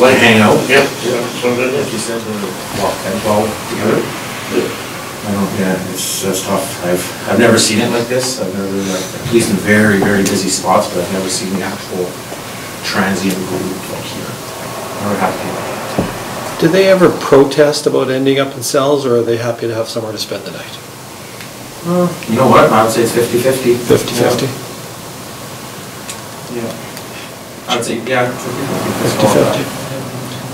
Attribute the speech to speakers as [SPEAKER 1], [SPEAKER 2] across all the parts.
[SPEAKER 1] like hangout.
[SPEAKER 2] Yeah, that's what it
[SPEAKER 3] Like
[SPEAKER 2] is.
[SPEAKER 3] you said, they walk ten, twelve together. I don't, yeah, it's, that's tough. I've, I've never seen it like this. I've never, like, at least in very, very busy spots, but I've never seen the actual transient group like here. Never happened like that.
[SPEAKER 4] Do they ever protest about ending up in cells, or are they happy to have somewhere to spend the night?
[SPEAKER 3] Well, You know what, I would say it's fifty-fifty.
[SPEAKER 4] 50/50?
[SPEAKER 3] Yeah. I'd say, yeah. it's a good-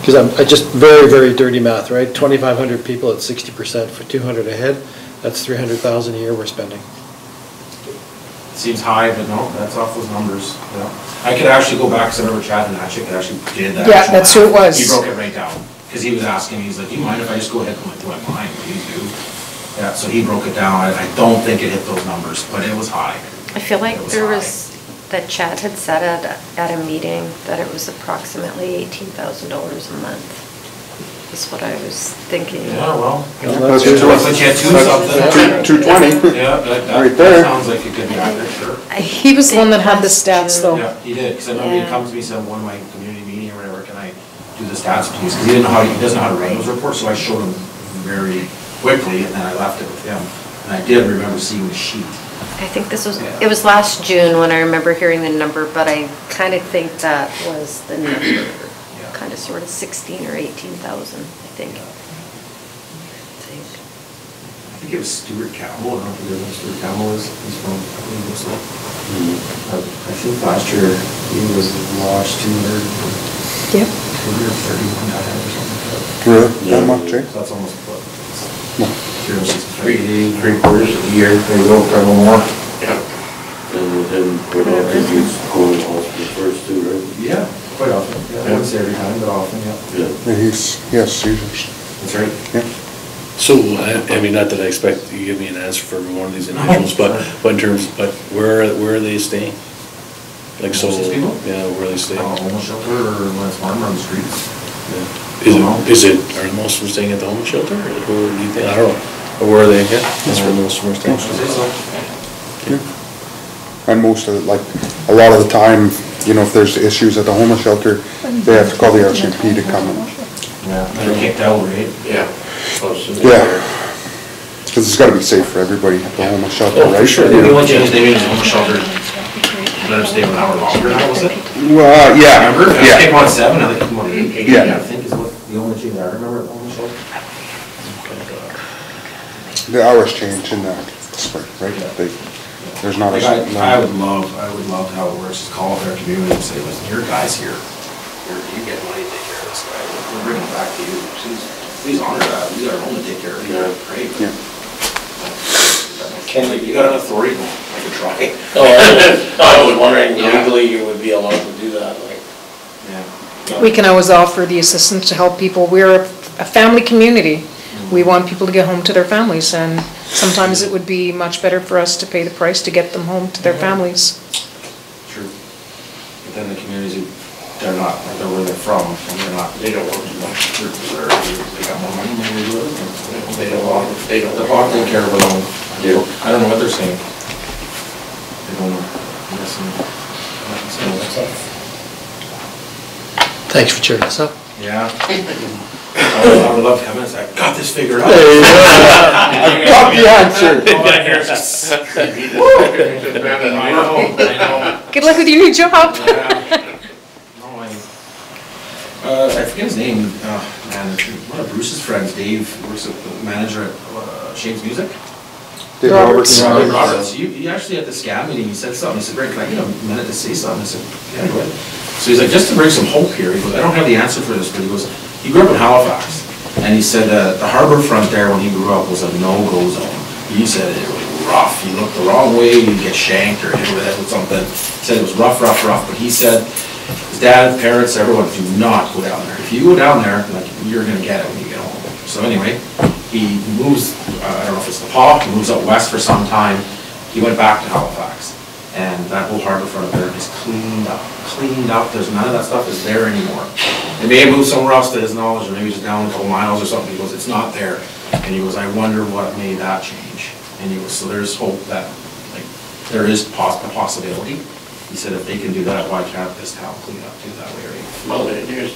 [SPEAKER 4] Because I'm, I just, very, very dirty math, right? 2,500 people at 60% for 200 a head, that's 300,000 a year we're spending.
[SPEAKER 3] Seems high, but no, that's off those numbers, yeah. I could actually go back, because I remember Chad and Natchick actually did that.
[SPEAKER 5] Yeah, that's who it was.
[SPEAKER 3] He broke it right down, because he was asking, he's like, you mind if I just go ahead and do my line, please do? Yeah, so he broke it down, I, I don't think it hit those numbers, but it was high.
[SPEAKER 6] I feel like
[SPEAKER 3] It
[SPEAKER 6] there
[SPEAKER 3] high.
[SPEAKER 6] was, that Chad had said at, at a meeting that it was approximately eighteen thousand dollars a month, is what I was thinking.
[SPEAKER 3] Yeah, well.
[SPEAKER 4] Well,
[SPEAKER 3] But
[SPEAKER 4] that's
[SPEAKER 3] you
[SPEAKER 4] good.
[SPEAKER 3] had two something.
[SPEAKER 6] Two- two twenty.
[SPEAKER 3] Yeah, that, that-
[SPEAKER 1] Right
[SPEAKER 3] that
[SPEAKER 1] there.
[SPEAKER 3] sounds like it could be accurate, sure.
[SPEAKER 6] I
[SPEAKER 5] He was the one that had the
[SPEAKER 6] think that's true.
[SPEAKER 5] stats, though.
[SPEAKER 3] Yeah, he did, because I remember he
[SPEAKER 6] Yeah.
[SPEAKER 3] comes to me, said, one of my community meeting or whatever, can I do the stats please? Because he didn't know how, he doesn't know how to run those reports, so I showed him very quickly, and then I left it with him. And I did remember seeing the sheet.
[SPEAKER 6] I think this was,
[SPEAKER 3] Yeah.
[SPEAKER 6] it was last June when I remember hearing the number, but I kind of think that was the number, kind of sort of sixteen or eighteen thousand, I think. I
[SPEAKER 3] I think it was Stuart Campbell, I don't know if you know who Stuart Campbell is, he's from, I believe it's, uh, I think last year, he was lodged two hundred,
[SPEAKER 5] Yep.
[SPEAKER 3] two hundred thirty-one out of it or something. like that.
[SPEAKER 1] Really? That much, eh?
[SPEAKER 3] So that's almost what, it's-
[SPEAKER 1] No.
[SPEAKER 3] here it is.
[SPEAKER 1] Three, three quarters of the year, they go probably more.
[SPEAKER 2] Yeah. And then, what else did you go to hospital first too, right?
[SPEAKER 3] Yeah, quite often, yeah, I wouldn't say every time, but often, yeah.
[SPEAKER 2] Yeah.
[SPEAKER 1] He's, yes, he's,
[SPEAKER 3] That's right.
[SPEAKER 1] yeah.
[SPEAKER 7] So, I I mean, not that I expect you to give me an answer for every one of these individuals, but, but in terms, but where, where are they staying? Like, so,
[SPEAKER 3] Most of these people?
[SPEAKER 7] yeah, where are they staying?
[SPEAKER 3] Uh, homeless shelter or when it's warmer on the streets.
[SPEAKER 7] Yeah. Is it, is it, are most of them staying at the homeless shelter, or do you think, I don't know, or where are they, yeah, that's where most of them are
[SPEAKER 3] Is it
[SPEAKER 7] staying.
[SPEAKER 3] so?
[SPEAKER 1] And most of, it, like, a lot of the time, you know, if there's issues at the homeless shelter, they have to call the RCMP to come in.
[SPEAKER 3] Yeah. They're kicked out, right?
[SPEAKER 2] Yeah. Oh, Close to there.
[SPEAKER 1] Yeah. Because it's gotta be safe for everybody at the homeless shelter,
[SPEAKER 7] Oh,
[SPEAKER 1] right?
[SPEAKER 7] for sure.
[SPEAKER 3] The only change they made is homeless shelter, let them stay an hour longer now, was it?
[SPEAKER 1] Well, uh, yeah,
[SPEAKER 3] Remember? They
[SPEAKER 1] yeah.
[SPEAKER 3] kicked one at seven, now they kick them on eight, eight,
[SPEAKER 1] Yeah.
[SPEAKER 3] I think is what, the only change I remember at homeless shelter.
[SPEAKER 7] Oh,
[SPEAKER 1] The hours change in the spring, right? They, there's not
[SPEAKER 3] Like,
[SPEAKER 1] as.
[SPEAKER 3] I, I would love, I would love how it works, just call up their community and say, listen, your guy's here. Here, you get money, to take care of this guy, We're- we're bringing it back to you, please, please honor that, we got our own to take care of, you know, great.
[SPEAKER 1] Yeah.
[SPEAKER 3] Can, like, you got an authority, I could try.
[SPEAKER 2] Oh, I was wondering
[SPEAKER 3] Yeah.
[SPEAKER 2] legally you would be allowed to do that, like.
[SPEAKER 5] We can always offer the assistance to help people. We're a a family community. We want people to get home to their families, and sometimes it would be much better for us to pay the price to get them home to their families.
[SPEAKER 3] True. But then the communities, who- they're not, like, they're where they're from, and they're not, they don't want to, they're, they got more money than we do, and they don't want, they don't, they're not taking care of their own.
[SPEAKER 2] Yeah.
[SPEAKER 3] I don't know what they're saying. They don't, know. listen, nothing saying what's up.
[SPEAKER 4] Thanks for cheering us up.
[SPEAKER 3] Yeah. I would- I would love to come in and say, I got this figured out.
[SPEAKER 1] I uh, got the answer.
[SPEAKER 3] All I hear is just- I know, I know.
[SPEAKER 5] Good luck with your new job.
[SPEAKER 3] Yeah. No, I uh, I forget his name, uh, man, it's one of Bruce's friends, Dave, works at, the manager at uh, Shane's Music.
[SPEAKER 1] Dave Roberts.
[SPEAKER 3] Robert Roberts, he, he actually at the SCAB meeting, he said something, he said, Rick, can I get a minute to say something? I said, yeah, go ahead. So he's like, just to bring some hope here, he goes, I don't have the answer for this, but he goes, he grew up in Halifax, and he said, uh, the harbor front there when he grew up was a no-go zone. He said it was rough, you looked the wrong way, you'd get shanked or hit with it with something, he said it was rough, rough, rough, but he said, his dad, parents, everyone, do not go down there. If you go down there, like, you're gonna get it when you get home. So anyway, he moves, uh, I don't know if it's the paw, he moves up west for some time. He went back to Halifax, and that whole harbor front there is cleaned up, cleaned up, there's none of that stuff is there anymore. They may have moved somewhere else to his knowledge, or maybe just down a couple miles or something, he goes, it's not there. And he goes, I wonder what made that change. And he goes, so there's hope that, like, there is poss- a possibility. He said, if they can do that, why can't this town clean up too that way, right?
[SPEAKER 2] Well, it is.